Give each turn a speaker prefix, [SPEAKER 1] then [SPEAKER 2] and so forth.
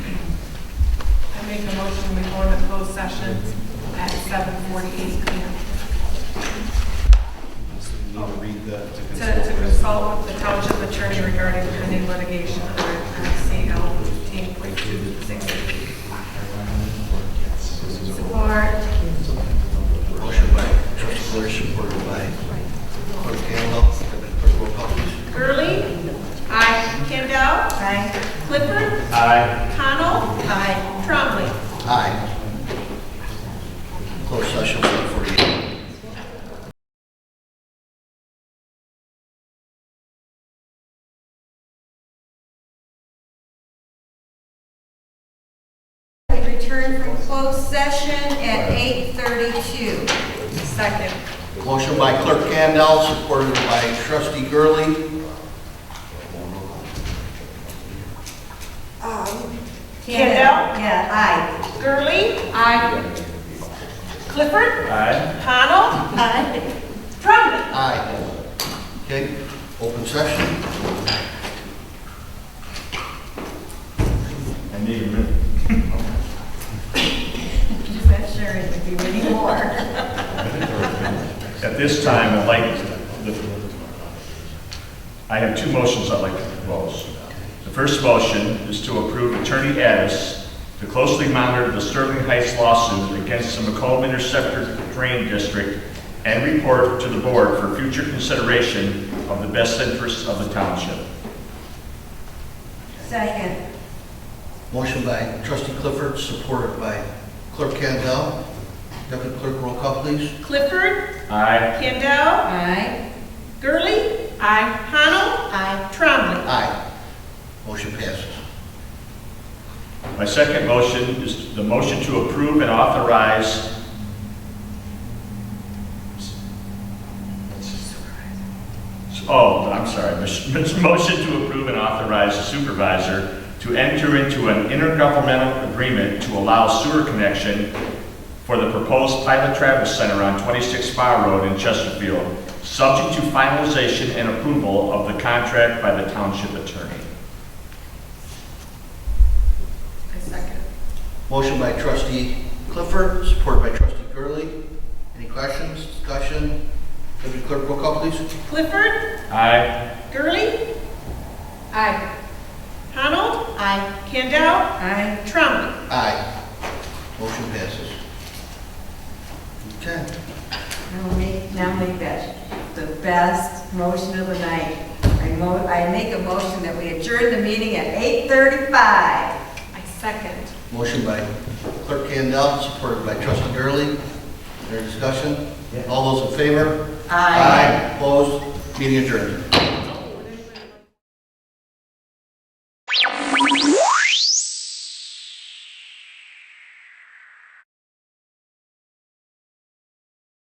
[SPEAKER 1] make a motion, we go into closed session at seven forty-eight PM
[SPEAKER 2] So you need to read the, to
[SPEAKER 1] to,
[SPEAKER 2] consult.
[SPEAKER 1] to
[SPEAKER 2] with-
[SPEAKER 1] consult with the township attorney regarding pending litigation under MCL eighteen point two six. Support.
[SPEAKER 3] Motion by trustee Lewis, supported by clerk Campbell. Clerk, roll call, please.
[SPEAKER 1] Gurley? Aye. Campbell? Aye. Clifford? Aye. Connell? Aye. Trombley?
[SPEAKER 3] Aye. Closed session, 148.
[SPEAKER 4] We return from closed session at 8:32.
[SPEAKER 1] Second.
[SPEAKER 3] Motion by Clerk Campbell, supported by Trustee Gurley.
[SPEAKER 1] Campbell?
[SPEAKER 4] Yeah, aye.
[SPEAKER 1] Gurley? Aye. Clifford? Aye. Connell? Aye. Trombley?
[SPEAKER 3] Aye. Okay, open session.
[SPEAKER 5] I need a minute.
[SPEAKER 4] Just not sure it would be anymore.
[SPEAKER 5] At this time, I'd like, the- I have two motions I'd like to propose. The first motion is to approve Attorney Addis to closely monitor the Sterling Heights lawsuit against the McComb Interceptor Drain District and report to the board for future consideration of the best interests of the township.
[SPEAKER 4] Second.
[SPEAKER 3] Motion by Trustee Clifford, supported by Clerk Campbell. Deputy Clerk, roll call, please.
[SPEAKER 1] Clifford?
[SPEAKER 5] Aye.
[SPEAKER 1] Campbell?
[SPEAKER 4] Aye.
[SPEAKER 1] Gurley? Aye. Connell? Aye. Trombley?
[SPEAKER 3] Aye. Motion passes.
[SPEAKER 5] My second motion is the motion to approve and authorize. Oh, I'm sorry, This- this motion to approve and authorize the supervisor to enter into an intergovernmental agreement to allow sewer connection for the proposed pilot travel center on 26 Fire Road in Chesterfield, subject to finalization and approval of the contract by the township attorney.
[SPEAKER 1] I second.
[SPEAKER 3] Motion by trustee Clifford, supported by trustee Gurley. Any questions, discussion? Deputy clerk, roll call, please.
[SPEAKER 1] Clifford?
[SPEAKER 5] Aye.
[SPEAKER 1] Gurley? Aye. Connell? Aye. Campbell?
[SPEAKER 4] Aye.
[SPEAKER 1] Trombley?
[SPEAKER 3] Aye. Motion passes. Okay.
[SPEAKER 4] I'll make, now make that the best motion of the night. I mo, I make a motion that we adjourn the meeting at 8:35.
[SPEAKER 1] I second.
[SPEAKER 3] Motion by clerk Candell, supported by trustee Gurley. Any discussion? All those in favor? Opposed? Meeting adjourned.